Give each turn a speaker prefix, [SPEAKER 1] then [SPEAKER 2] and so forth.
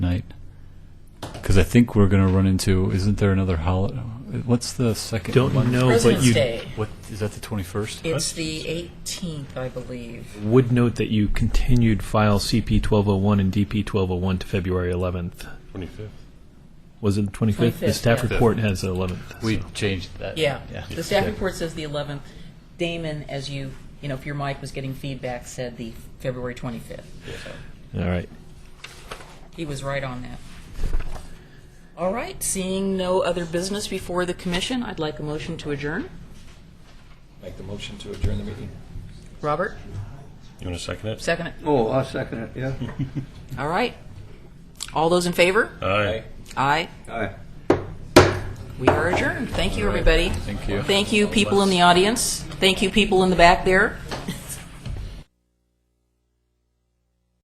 [SPEAKER 1] Because I think we're going to run into, isn't there another holiday? What's the second
[SPEAKER 2] Don't
[SPEAKER 1] Monday?
[SPEAKER 2] know, Oh, but
[SPEAKER 3] President's
[SPEAKER 2] you
[SPEAKER 3] Day.
[SPEAKER 1] What, is that the 21st?
[SPEAKER 3] It's the 18th, I believe.
[SPEAKER 2] would note that you continued file CP 1201 and DP 1201 to February 11th.
[SPEAKER 4] 25th.
[SPEAKER 2] Was it the 25th? the
[SPEAKER 3] 25th,
[SPEAKER 2] staff
[SPEAKER 3] yeah.
[SPEAKER 2] report has the 11th.
[SPEAKER 1] We
[SPEAKER 2] so.
[SPEAKER 1] changed that.
[SPEAKER 3] Yeah.
[SPEAKER 2] Yeah.
[SPEAKER 3] The staff
[SPEAKER 2] Okay.
[SPEAKER 3] report says the 11th. Damon, as you, you know, if your mic was getting feedback, said the February 25th. So
[SPEAKER 2] All right.
[SPEAKER 3] He was right on that. All right, seeing no other business before the commission, I'd like a motion to adjourn.
[SPEAKER 5] Make the motion to adjourn the meeting.
[SPEAKER 3] Robert,
[SPEAKER 4] You want to second it?
[SPEAKER 3] second it.
[SPEAKER 6] Oh, I'll second it, yeah.
[SPEAKER 3] All right. All those in favor?
[SPEAKER 4] Aye.
[SPEAKER 3] Aye.
[SPEAKER 6] Aye.
[SPEAKER 3] We are adjourned. Thank you, everybody.
[SPEAKER 1] Thank you.
[SPEAKER 3] Thank you, people in the audience. Thank you, people in the back there.